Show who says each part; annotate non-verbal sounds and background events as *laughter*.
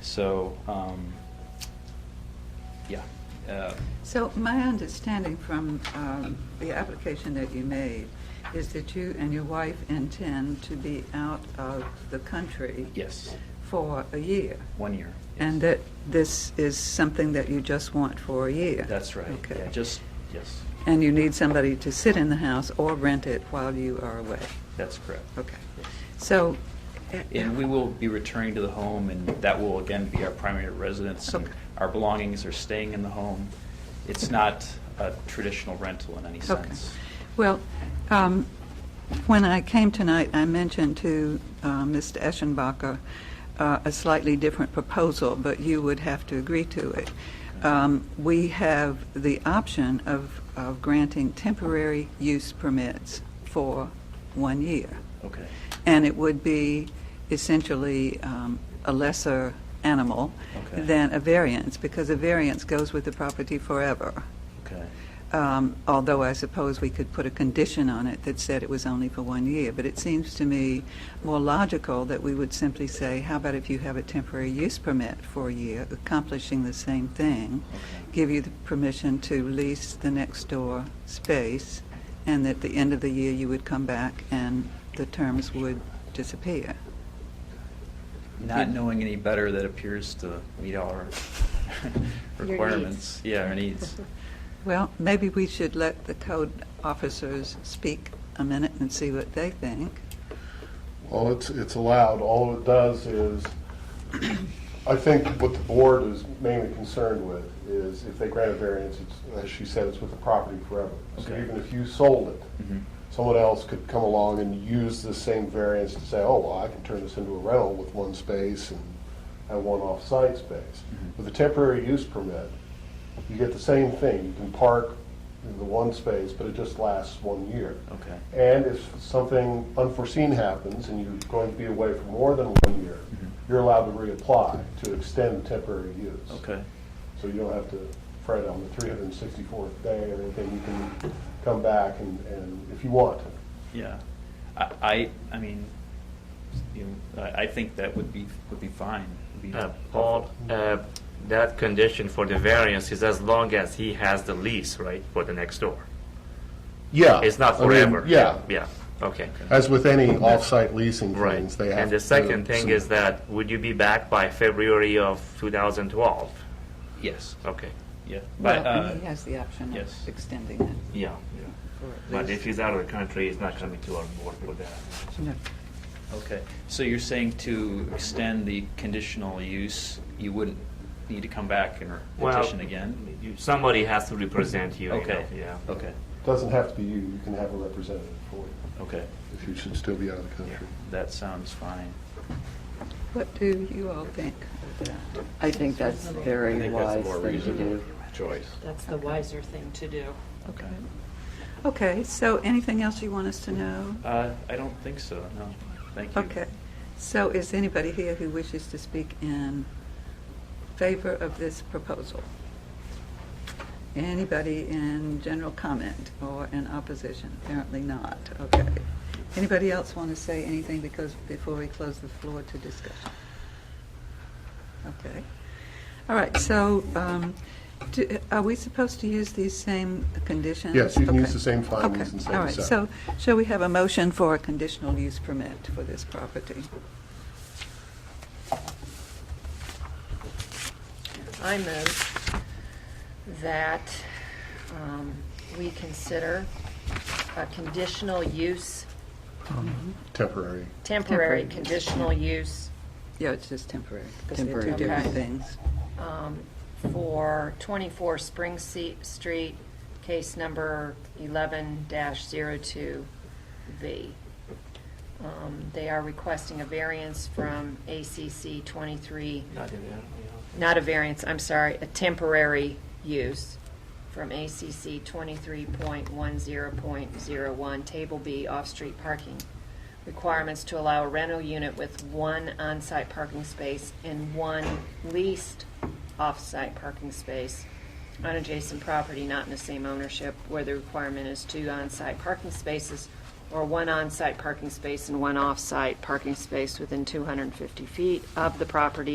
Speaker 1: So, um, yeah. Uh,
Speaker 2: So my understanding from um, the application that you made is that you and your wife intend to be out of the country
Speaker 1: Yes,
Speaker 2: for a year,
Speaker 1: one year. yes.
Speaker 2: and that this is something that you just want for a year?
Speaker 1: That's right. Yeah,
Speaker 2: Okay.
Speaker 1: just, yes,
Speaker 2: And you need somebody to sit in the house or rent it while you are away?
Speaker 1: that's correct.
Speaker 2: Okay. So...
Speaker 1: And we will be returning to the home, and that will again be our primary residence. and
Speaker 2: Okay.
Speaker 1: Our belongings are staying in the home. It's not a traditional rental in any
Speaker 2: Okay.
Speaker 1: sense.
Speaker 2: Well, um, when I came tonight, I mentioned to uh, Mr. Eschenbacher uh, a slightly different proposal, but you would have to agree to it. Um, We have the option of of granting temporary use permits for one year,
Speaker 1: Okay,
Speaker 2: and it would be essentially um, a lesser animal
Speaker 1: Okay.
Speaker 2: than a variance, because a variance goes with the property forever.
Speaker 1: okay,
Speaker 2: Um, although I suppose we could put a condition on it that said it was only for one year. But it seems to me more logical that we would simply say, how about if you have a temporary use permit for a year, accomplishing the same thing,
Speaker 1: okay,
Speaker 2: give you the permission to lease the next door space, and at the end of the year, you would come back and the terms would disappear.
Speaker 1: Not knowing any better, that appears to meet all our
Speaker 3: Your
Speaker 1: *laughs* requirements. Yeah, our needs.
Speaker 2: *laughs* Well, maybe we should let the code officers speak a minute and see what they think.
Speaker 4: Well, it's, it's allowed. All it does is, I think what the board is mainly concerned with is if they grant a variance, it's, as she said, it's with the property forever. So
Speaker 1: Okay.
Speaker 4: even if you sold it,
Speaker 1: Mhm.
Speaker 4: someone else could come along and use this same variance to say, oh, well, I can turn this into a rental with one space and, and one off-site space.
Speaker 1: Mhm.
Speaker 4: With a temporary use permit, you get the same thing. You can park in the one space, but it just lasts one year.
Speaker 1: Okay,
Speaker 4: And if something unforeseen happens and you're going to be away for more than one year,
Speaker 5: Mm-hmm.
Speaker 4: you're allowed to reapply to extend the temporary use.
Speaker 1: okay,
Speaker 4: So you don't have to fret on the 364th day or anything. You can come back and, and if you want to.
Speaker 1: yeah. I, I, I mean, you know, I, I think that would be, would be fine. Would be
Speaker 5: Uh,
Speaker 1: helpful.
Speaker 5: all, uh, that condition for the variance is as long as he has the lease, right, for the next door.
Speaker 4: Yeah.
Speaker 5: It's not forever. Uh, Yeah, okay.
Speaker 4: As with any off-site leasing
Speaker 5: Right. And the second thing is that, would you be back by February of 2012?
Speaker 1: Yes,
Speaker 5: Okay.
Speaker 1: yeah. But,
Speaker 2: Well, and
Speaker 1: uh,
Speaker 2: he has the option of
Speaker 1: yes.
Speaker 2: extending it
Speaker 5: Yeah.
Speaker 2: for at
Speaker 5: But if
Speaker 2: least-
Speaker 5: he's out of the country, he's not coming to our board for that.
Speaker 2: No.
Speaker 1: Okay, so you're saying to extend the conditional use, you wouldn't need to come back and petition again?
Speaker 5: Well, you- somebody has to represent you, you know,
Speaker 1: Okay,
Speaker 5: yeah.
Speaker 1: okay,
Speaker 4: Doesn't have to be you. You can have a representative for you
Speaker 1: okay,
Speaker 4: if you should still be out of the country.
Speaker 1: that sounds fine.
Speaker 2: What do you all think of that?
Speaker 6: I think that's a very wise thing to do.
Speaker 7: choice.
Speaker 3: That's the wiser thing to do.
Speaker 1: Okay.
Speaker 2: Okay, so anything else you want us to know?
Speaker 1: Uh, I don't think so, no, thank you.
Speaker 2: Okay, so is anybody here who wishes to speak in favor of this proposal? Anybody in general comment or in opposition? Apparently not, okay. Anybody else want to say anything because, before we close the floor to discussion? Okay. All right, so um, do- are we supposed to use these same conditions?
Speaker 4: Yes, you can use
Speaker 2: Okay.
Speaker 4: the same findings
Speaker 2: Okay,
Speaker 4: and same
Speaker 2: All right,
Speaker 4: set.
Speaker 2: so shall we have a motion for a conditional use permit for this property?
Speaker 3: I move that um, we consider a conditional use,
Speaker 4: Temporary.
Speaker 3: temporary
Speaker 6: Temporary use,
Speaker 3: conditional use
Speaker 2: Yeah, it's just temporary, because they're two
Speaker 6: Temporary.
Speaker 2: different
Speaker 3: Okay.
Speaker 2: things.
Speaker 3: um, for 24 Spring Se- Street, case number 11-02B. Um, They are requesting a variance from ACC 23
Speaker 5: Not in there, yeah.
Speaker 3: not a variance, I'm sorry, a temporary use from ACC 23.10.01, Table B, off-street parking. Requirements to allow a rental unit with one on-site parking space and one leased off-site parking space on adjacent property not in the same ownership, where the requirement is two on-site parking spaces or one on-site parking space and one off-site parking space within 250 feet of the property